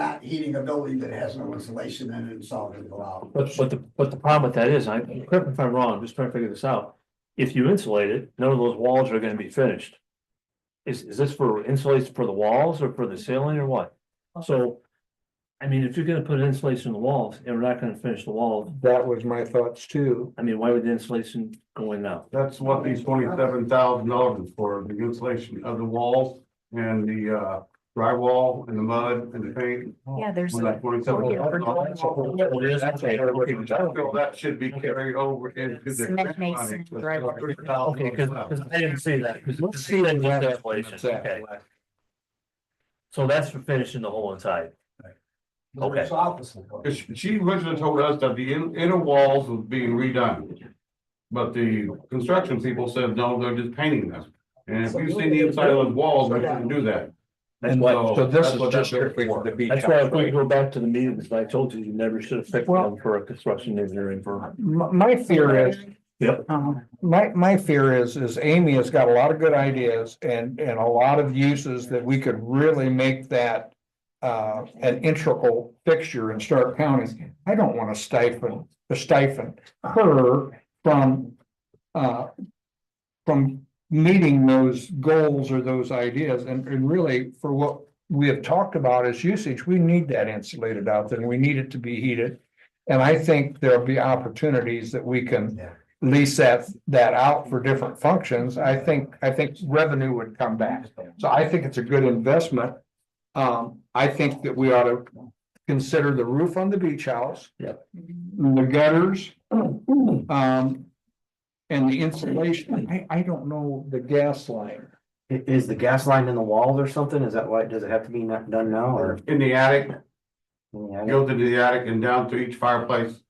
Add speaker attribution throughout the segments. Speaker 1: not heating a building that has no insulation in it and solve it out.
Speaker 2: But, but the, but the problem with that is, I, correct me if I'm wrong, I'm just trying to figure this out. If you insulate it, none of those walls are gonna be finished. Is, is this for insulation for the walls or for the ceiling or what? So. I mean, if you're gonna put insulation in the walls and we're not gonna finish the walls,
Speaker 3: That was my thoughts too.
Speaker 2: I mean, why would the insulation go in now?
Speaker 4: That's what these twenty-seven thousand dollars is for, the insulation of the walls and the uh drywall and the mud and the paint.
Speaker 5: Yeah, there's.
Speaker 4: Well, that twenty-seven thousand dollars.
Speaker 2: Well, it is, okay, okay,
Speaker 4: I feel that should be carried over into the.
Speaker 5: Cement mason, drywall.
Speaker 2: Okay, cause, 'cause I didn't see that, 'cause this is just insulation, okay. So that's for finishing the whole inside. Okay.
Speaker 1: It's office. support.
Speaker 4: Cause she- she originally told us that the in- inner walls was being redone. But the construction people said, no, they're just painting them. And if you've seen the inside of those walls, we shouldn't do that.
Speaker 2: That's
Speaker 3: And
Speaker 2: why,
Speaker 4: So
Speaker 3: so this
Speaker 4: that's
Speaker 3: is
Speaker 4: what
Speaker 3: just
Speaker 4: that's there
Speaker 3: strictly for the beach.
Speaker 2: That's why
Speaker 3: house,
Speaker 2: if we
Speaker 3: right?
Speaker 2: go back to the meetings, I told you, you never should have picked
Speaker 3: Well-
Speaker 2: them for a construction engineering firm.
Speaker 3: My, my fear is,
Speaker 2: Yep.
Speaker 3: um, my, my fear is, is Amy has got a lot of good ideas and, and a lot of uses that we could really make that. Uh, an integral fixture in Stark County. I don't want to stifle, to stifle her from, uh. From meeting those goals or those ideas and, and really for what we have talked about as usage, we need that insulated out there. and We need it to be heated. And I think there'll be opportunities that we can
Speaker 1: Yeah.
Speaker 3: lease that, that out for different functions, I think, I think revenue would come back. So I think it's a good investment. Um, I think that we ought to consider the roof on the beach house.
Speaker 2: Yep.
Speaker 3: The gutters. Um. And the insulation, I, I don't know the gas line.
Speaker 6: I- Is the gas line in the walls or something? Is that why, does it have to be not done now or?
Speaker 4: In the attic,
Speaker 6: Yeah,
Speaker 4: goes into the attic and down to each fireplace.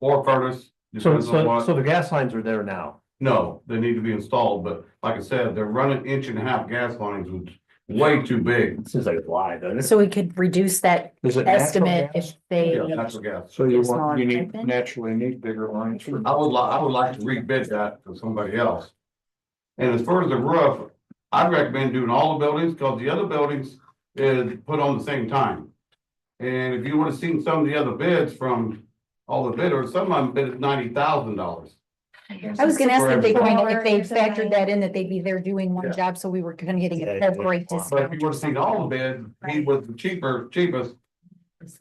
Speaker 4: Or furnace,
Speaker 2: So,
Speaker 4: depends on
Speaker 2: so, so the
Speaker 4: what,
Speaker 2: gas lines are there now.
Speaker 4: no, they need to be installed, but like I said, they're running inch and a half gas lines, which is way too big.
Speaker 2: It seems like it's live, doesn't it?
Speaker 5: So we could reduce that
Speaker 3: Is it natural
Speaker 5: estimate
Speaker 3: gas?
Speaker 5: if they,
Speaker 4: Natural gas.
Speaker 3: So you
Speaker 5: It's
Speaker 3: want, you
Speaker 5: not
Speaker 3: need,
Speaker 5: open?
Speaker 3: naturally need bigger lines for.
Speaker 4: I would li- I would like to rebid that to somebody else. And as far as the roof, I'd recommend doing all the buildings, cause the other buildings is put on the same time. And if you would've seen some of the other bids from all the bidders, some of them bid at ninety thousand dollars.
Speaker 5: I was gonna ask if they
Speaker 4: For
Speaker 5: kind of, if they factored that in, that they'd be there doing one job, so we were kind of getting
Speaker 2: Yeah,
Speaker 5: a
Speaker 2: yeah.
Speaker 5: great
Speaker 4: But
Speaker 5: discount.
Speaker 4: if you would have seen all the bids, he
Speaker 5: Right.
Speaker 4: was the cheaper, cheapest. Of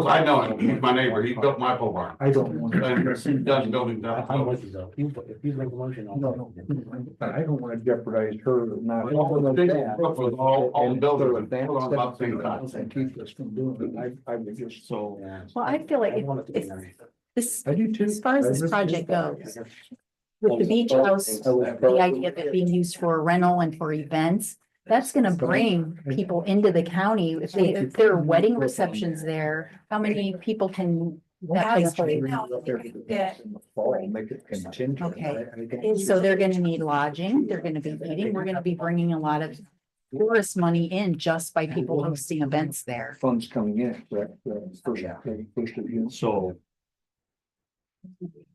Speaker 4: course, I know him, he's my neighbor, he built my pole barn,
Speaker 3: I don't want.
Speaker 4: and he does building down.
Speaker 6: I'm with you though. You, if you make a motion, I'll.
Speaker 3: No, no, I don't wanna jeopardize her not.
Speaker 4: Well, the big roof was all- all buildings and put on about the same size.
Speaker 3: And keep us from doing it, I, I would just so.
Speaker 6: Yeah.
Speaker 5: Well, I feel like
Speaker 6: I want it to be
Speaker 5: if-
Speaker 6: nice.
Speaker 5: This,
Speaker 3: I do too.
Speaker 5: as far as this project goes, with the beach house, the idea of it being used for rental and for events, that's gonna bring people into the county. If they, if there are wedding receptions there, how many people can that place hold?
Speaker 3: Make it contingent.
Speaker 5: Okay. So they're gonna need lodging, they're gonna be eating, we're gonna be bringing a lot of tourist money in just by people hosting events there.
Speaker 3: Funds coming in, correct? The first-
Speaker 6: Yeah.
Speaker 3: the first of you.
Speaker 2: So,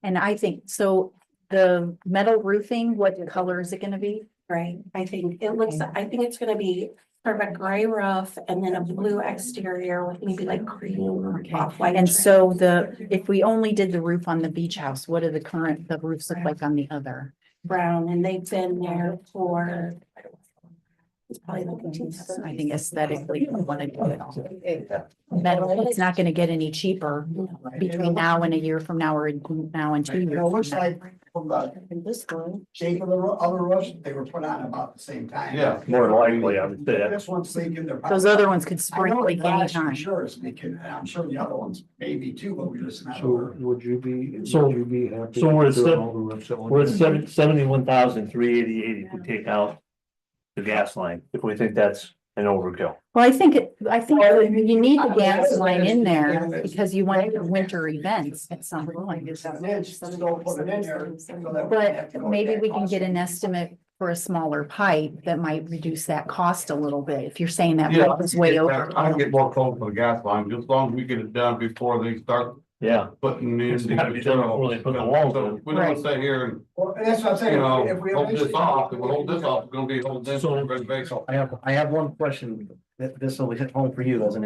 Speaker 5: And I think, so the metal roofing, what color is it gonna be?
Speaker 7: Right, I think it looks, I think it's gonna be sort of a gray roof and then a blue exterior with maybe like cream or
Speaker 5: Okay,
Speaker 7: off-white.
Speaker 5: And
Speaker 7: trim.
Speaker 5: so the, if we only did the roof on the beach house, what do the current, the roofs look like on the other?
Speaker 7: Brown, and they've been there for. It's probably the eighteen seventies.
Speaker 5: I think aesthetically, we wanna do it all. Metal, it's not gonna get any cheaper between now and a year from now or now and two years.
Speaker 1: It looks
Speaker 5: from now.
Speaker 1: like from the
Speaker 7: In this one.
Speaker 1: shape of the ro- other roofs, they were put on about the same time.
Speaker 4: Yeah.
Speaker 2: more likely, I would say that.
Speaker 1: This one's leaking. they're probably-
Speaker 5: Those other ones could
Speaker 1: I
Speaker 5: spring
Speaker 1: know the
Speaker 5: like
Speaker 1: glass for
Speaker 5: anytime.
Speaker 1: sure is leaking, and I'm sure the other ones maybe too, but we just not
Speaker 3: So
Speaker 1: aware.
Speaker 3: would you be, would
Speaker 2: So-
Speaker 3: you be happy?
Speaker 2: so we're at
Speaker 3: doing
Speaker 2: seven-
Speaker 3: all the rooms at once?
Speaker 2: We're at seven, seventy-one thousand, three eighty-eight if we take out the gas line, if we think that's an overkill.
Speaker 5: Well, I think, it- I think
Speaker 1: Well,
Speaker 5: you need the
Speaker 1: I-
Speaker 5: gas line in
Speaker 1: Yeah,
Speaker 5: there
Speaker 1: it's-
Speaker 5: because you want your winter events at some point.
Speaker 1: It's an inch, just don't put it in there, so that we don't have
Speaker 5: But
Speaker 1: to go
Speaker 5: maybe
Speaker 1: back
Speaker 5: we can get an
Speaker 1: constantly.
Speaker 5: estimate for a smaller pipe that might reduce that cost a little bit, if you're saying that
Speaker 4: Yeah,
Speaker 5: pipe is way over.
Speaker 4: I get more cold for the gas line, just as long as we get it done before they start
Speaker 2: Yeah,
Speaker 4: putting in.
Speaker 2: It's
Speaker 4: the
Speaker 2: gotta be done before they put the walls in.
Speaker 4: So We don't wanna sit here and,
Speaker 1: Well, and that's what I'm saying.
Speaker 4: you know,
Speaker 1: if we
Speaker 4: hold this
Speaker 1: eventually-
Speaker 4: off, if we hold this off, we're gonna be holding this.
Speaker 2: So-
Speaker 4: reservation.
Speaker 6: I have, I have one question. Th- This will hit home for you as an